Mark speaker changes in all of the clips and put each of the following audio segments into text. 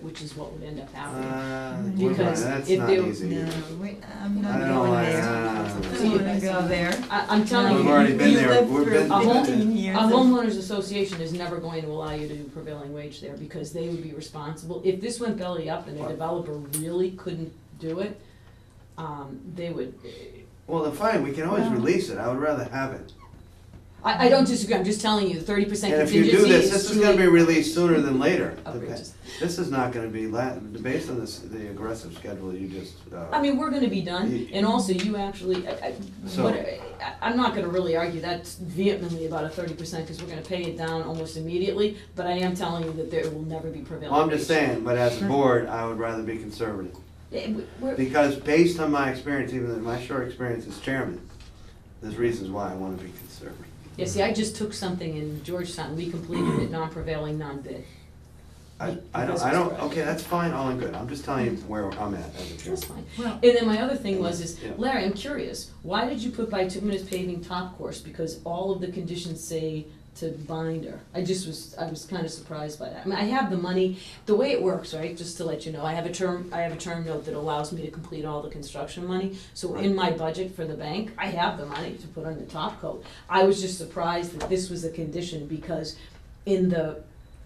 Speaker 1: which is what would end up happening.
Speaker 2: Uh,
Speaker 3: Because
Speaker 2: we're not- that's
Speaker 1: if
Speaker 2: not
Speaker 1: they-
Speaker 2: easy.
Speaker 3: No, we, I'm
Speaker 2: I
Speaker 3: not
Speaker 2: don't
Speaker 3: going
Speaker 2: like
Speaker 3: there.
Speaker 2: that.
Speaker 3: I don't wanna go there.
Speaker 1: I, I'm telling you.
Speaker 2: We've already been
Speaker 3: We
Speaker 2: there.
Speaker 3: lived
Speaker 2: We've
Speaker 3: through
Speaker 2: been-
Speaker 1: A home-
Speaker 3: 15 years
Speaker 1: A
Speaker 3: of-
Speaker 1: homeowners association is never going to allow you to do prevailing wage there because they would be responsible. If this went belly up and a developer really couldn't do it, um, they would,
Speaker 2: Well, then fine, we can always
Speaker 3: Well-
Speaker 2: release it. I would rather have it.
Speaker 1: I, I don't disagree, I'm just telling you, thirty percent
Speaker 2: And if
Speaker 1: contingency
Speaker 2: you
Speaker 1: is
Speaker 2: do this, this is gonna be
Speaker 1: truly
Speaker 2: released sooner than later.
Speaker 1: outrageous.
Speaker 2: This is not gonna be la, based on this, the aggressive schedule you just,
Speaker 1: I
Speaker 2: uh,
Speaker 1: mean, we're gonna be done, and also you actually, I, I,
Speaker 2: So-
Speaker 1: what, I, I'm not gonna really argue that vehemently about a thirty percent, cause we're gonna pay it down almost immediately, but I am telling you that there will never be prevailing wage.
Speaker 2: well, I'm just saying, but as a board, I would rather be conservative.
Speaker 1: Yeah, we- we're-
Speaker 2: Because based on my experience, even in my short experience as chairman, there's reasons why I wanna be conservative.
Speaker 1: Yeah, see, I just took something in Georgetown, we completed it non-prevailing, non-bid.
Speaker 2: I, I don't, I don't, okay, that's fine, all in good. I'm just telling you where I'm at as a
Speaker 1: That's
Speaker 2: chairman.
Speaker 1: fine.
Speaker 3: Well-
Speaker 1: And then my other thing was is,
Speaker 2: Yeah.
Speaker 1: Larry, I'm curious, why did you put bituminous paving top course? Because all of the conditions say to binder. I just was, I was kind of surprised by that. I mean, I have the money, the way it works, right, just to let you know, I have a term, I have a term note that allows me to complete all the construction money. So in my budget for the bank, I have the money to put on the top coat. I was just surprised that this was a condition because in the,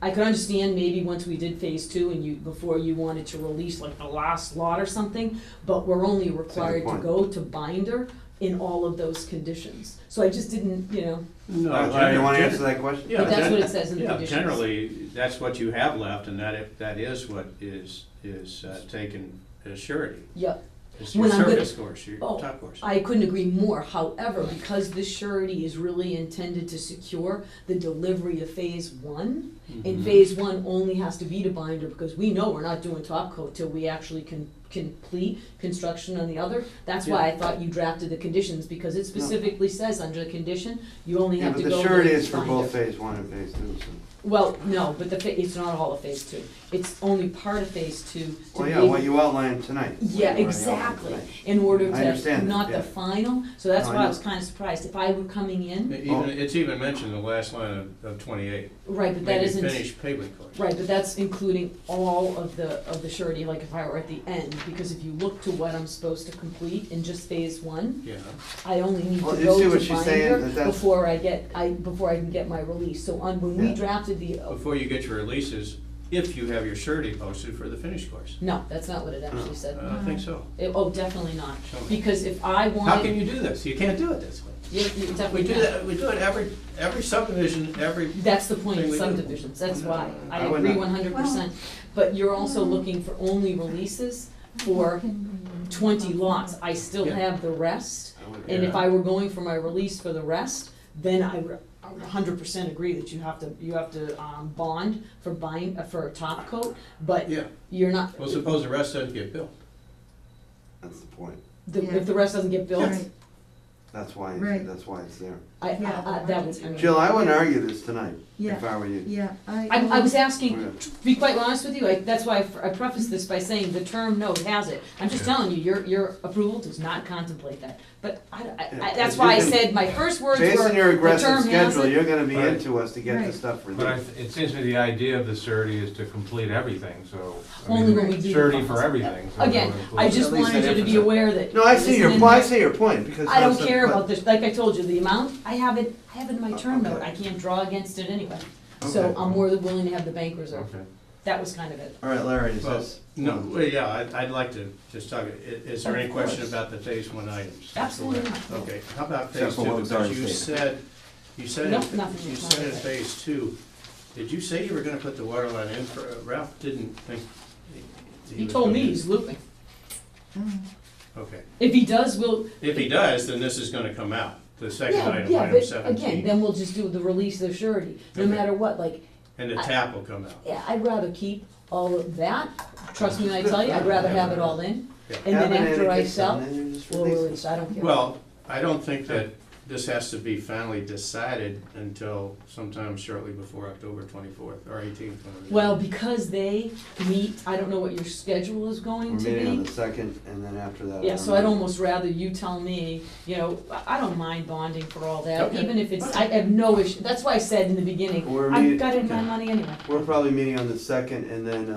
Speaker 1: I could understand maybe once we did phase two and you, before you wanted to release like the last lot or something, but we're only required to
Speaker 2: point.
Speaker 1: go to binder in all of those conditions. So I just didn't, you know,
Speaker 4: No,
Speaker 2: Uh,
Speaker 4: I-
Speaker 2: Jim, you wanna
Speaker 4: gen-
Speaker 2: answer that question?
Speaker 4: yeah,
Speaker 1: But that's
Speaker 4: gen-
Speaker 1: what it says in the
Speaker 4: yeah,
Speaker 1: conditions.
Speaker 4: generally, that's what you have left, and that, if that is what is, is uh, taken as surety.
Speaker 1: yeah,
Speaker 4: It's your
Speaker 1: When I'm gonna-
Speaker 4: surface course, your
Speaker 1: Oh,
Speaker 4: top course.
Speaker 1: I couldn't agree more. However, because this surety is really intended to secure the delivery of phase one,
Speaker 4: Mm-hmm.
Speaker 2: Mm-hmm.
Speaker 1: and phase one only has to be to binder because we know we're not doing top coat till we actually can complete construction on the other. That's why I thought you drafted the conditions because it specifically says under the condition, you only
Speaker 2: Yeah,
Speaker 1: have to
Speaker 2: but
Speaker 1: go.
Speaker 2: the surety
Speaker 1: with
Speaker 2: is for
Speaker 1: binder.
Speaker 2: both phase one and phase two, so.
Speaker 1: Well, no, but the, fa- it's not all of phase two. It's only part of phase two. to
Speaker 2: Well,
Speaker 1: be
Speaker 2: yeah,
Speaker 1: able-
Speaker 2: what you outlined tonight. what you
Speaker 1: Yeah,
Speaker 2: already outlined
Speaker 1: exactly,
Speaker 2: tonight.
Speaker 1: in order
Speaker 2: I
Speaker 1: to,
Speaker 2: understand that,
Speaker 1: not
Speaker 2: yeah.
Speaker 1: the final, so that's
Speaker 2: No, I
Speaker 1: why I
Speaker 2: know.
Speaker 1: was kinda surprised, if I were coming in,
Speaker 4: E, Even, it's even mentioned in the last line of, of twenty-eight,
Speaker 1: right, but that
Speaker 4: maybe
Speaker 1: isn't.
Speaker 4: finished pavement course.
Speaker 1: Right, but that's including all of the, of the surety, like if I were at the end, because if you look to what I'm supposed to complete in just phase one,
Speaker 4: Yeah,
Speaker 1: I only need
Speaker 2: Well,
Speaker 1: to
Speaker 2: you
Speaker 1: go
Speaker 2: see what
Speaker 1: to
Speaker 2: she's saying,
Speaker 1: binder
Speaker 2: that that's-
Speaker 1: before I get, I, before I can get my release, so on, when we
Speaker 2: Yeah.
Speaker 1: drafted the, oh,
Speaker 4: before you get your releases, if you have your surety posted for the finished course.
Speaker 1: no, that's not what it actually
Speaker 4: I
Speaker 1: said.
Speaker 4: don't think so.
Speaker 1: It- Oh, definitely not,
Speaker 4: Uh, Show me.
Speaker 1: because if I
Speaker 4: How can
Speaker 1: wanted,
Speaker 4: you do this? You can't do it this way.
Speaker 1: you, you
Speaker 4: We
Speaker 1: definitely
Speaker 4: do
Speaker 1: can.
Speaker 4: that, we do it every, every subdivision, every,
Speaker 1: That's the point
Speaker 4: Thing
Speaker 1: of
Speaker 4: we do.
Speaker 1: subdivisions, that's why, I
Speaker 2: I would
Speaker 1: agree
Speaker 2: not-
Speaker 1: one hundred percent, but you're also looking for only releases for twenty lots, I still
Speaker 4: Yeah.
Speaker 1: have the rest,
Speaker 2: I would-
Speaker 1: and if
Speaker 4: Yeah.
Speaker 1: I were going for my release for the rest, then I would hundred percent agree that you have to, you have to, um, bond for buying, uh, for a top coat, but
Speaker 4: yeah.
Speaker 1: you're not,
Speaker 4: Well, suppose the rest doesn't get built.
Speaker 2: That's the point.
Speaker 1: the,
Speaker 3: Yeah.
Speaker 1: if the rest doesn't get built,
Speaker 3: Right.
Speaker 2: That's why,
Speaker 3: Right.
Speaker 2: that's why it's there.
Speaker 1: I, I,
Speaker 3: Yeah,
Speaker 1: I,
Speaker 3: the
Speaker 1: that
Speaker 3: right.
Speaker 1: was, I mean.
Speaker 2: Jill, I wouldn't argue this tonight, if
Speaker 3: Yeah,
Speaker 2: I were you.
Speaker 3: yeah, I.
Speaker 1: I, I was
Speaker 2: Yeah.
Speaker 1: asking, to be quite honest with you, I, that's why I f- I prefaced this by saying the term note has it. I'm just telling you, your, your approval does not contemplate that. But I, I- I,
Speaker 2: Yeah,
Speaker 1: that's
Speaker 2: but you
Speaker 1: why I
Speaker 2: can-
Speaker 1: said, my first words were, the
Speaker 2: Based on your
Speaker 1: term
Speaker 2: aggressive
Speaker 1: has
Speaker 2: schedule,
Speaker 1: it.
Speaker 2: you're gonna be
Speaker 5: Right.
Speaker 2: into us to get
Speaker 3: Right.
Speaker 2: this stuff
Speaker 5: But I,
Speaker 2: released.
Speaker 5: it seems to me the idea of the surety is to complete everything, so. I
Speaker 1: Only
Speaker 5: mean,
Speaker 1: when we do the
Speaker 5: Surety
Speaker 1: funds.
Speaker 5: for everything. so that
Speaker 1: Again,
Speaker 5: would include
Speaker 1: I just
Speaker 5: at least
Speaker 1: wanted
Speaker 5: that
Speaker 1: you to be
Speaker 5: infrastructure.
Speaker 1: aware that.
Speaker 2: No, I see your,
Speaker 1: this
Speaker 2: po- I
Speaker 1: is-
Speaker 2: see your point, because.
Speaker 1: I don't
Speaker 2: that's a-
Speaker 1: care
Speaker 2: but-
Speaker 1: about this, like I told you, the amount, I have it, I have it in my
Speaker 2: Oh,
Speaker 1: term note,
Speaker 2: okay.
Speaker 1: I can't draw against it anyway. So
Speaker 2: Okay.
Speaker 1: I'm more than willing to have the bank reserve.
Speaker 5: Okay.
Speaker 1: That was kind of it.
Speaker 2: All right, Larry, is
Speaker 4: Well,
Speaker 2: this?
Speaker 4: No, well, yeah, I'd, I'd like to just talk, i- is there any
Speaker 1: Of course.
Speaker 4: question about the phase one items?
Speaker 1: Absolutely not.
Speaker 4: Okay, how about
Speaker 6: Except
Speaker 4: phase
Speaker 6: for what
Speaker 4: two,
Speaker 6: was
Speaker 4: because
Speaker 6: already
Speaker 4: you
Speaker 6: stated.
Speaker 4: said, you said,
Speaker 1: No,
Speaker 4: in-
Speaker 1: nothing
Speaker 4: you
Speaker 1: is
Speaker 4: said in
Speaker 1: modified.
Speaker 4: phase two, did you say you were gonna put the water line in for, uh, Ralph didn't think. he
Speaker 1: He
Speaker 4: was
Speaker 1: told
Speaker 4: gonna
Speaker 1: me
Speaker 4: do-
Speaker 1: he's looping.
Speaker 4: Okay,
Speaker 1: If he does, we'll,
Speaker 4: if he does, then this is gonna come out, the second
Speaker 1: Yeah,
Speaker 4: item,
Speaker 1: yeah,
Speaker 4: item
Speaker 1: but again,
Speaker 4: seventeen,
Speaker 1: then we'll just do the release of surety, no
Speaker 4: Okay.
Speaker 1: matter what, like,
Speaker 4: and the
Speaker 1: I-
Speaker 4: tap will come out.
Speaker 1: yeah, I'd rather keep all of that, trust me when I tell you, I'd rather have it all in.
Speaker 4: Yeah.
Speaker 1: And then
Speaker 2: Have it
Speaker 1: after I
Speaker 2: gets
Speaker 1: sell,
Speaker 2: done, then you just
Speaker 1: we'll
Speaker 2: release it.
Speaker 1: release, I don't care.
Speaker 4: Well, I don't think that this has to be finally decided until sometime shortly before October twenty-fourth or eighteenth.
Speaker 1: Well, because they meet, I don't know what your schedule is
Speaker 2: We're
Speaker 1: going to
Speaker 2: meeting on the
Speaker 1: be.
Speaker 2: second, and then after that. I
Speaker 1: Yeah,
Speaker 2: don't
Speaker 1: so I'd
Speaker 2: know.
Speaker 1: almost rather you tell me, you know, I- I don't mind bonding for all that,
Speaker 4: Okay.
Speaker 1: even if it's, I have no issue, that's why I said in the beginning,
Speaker 2: We're
Speaker 1: I've
Speaker 2: meet-
Speaker 1: got it in my
Speaker 2: okay.
Speaker 1: money anyway.
Speaker 2: We're probably meeting on the second, and then,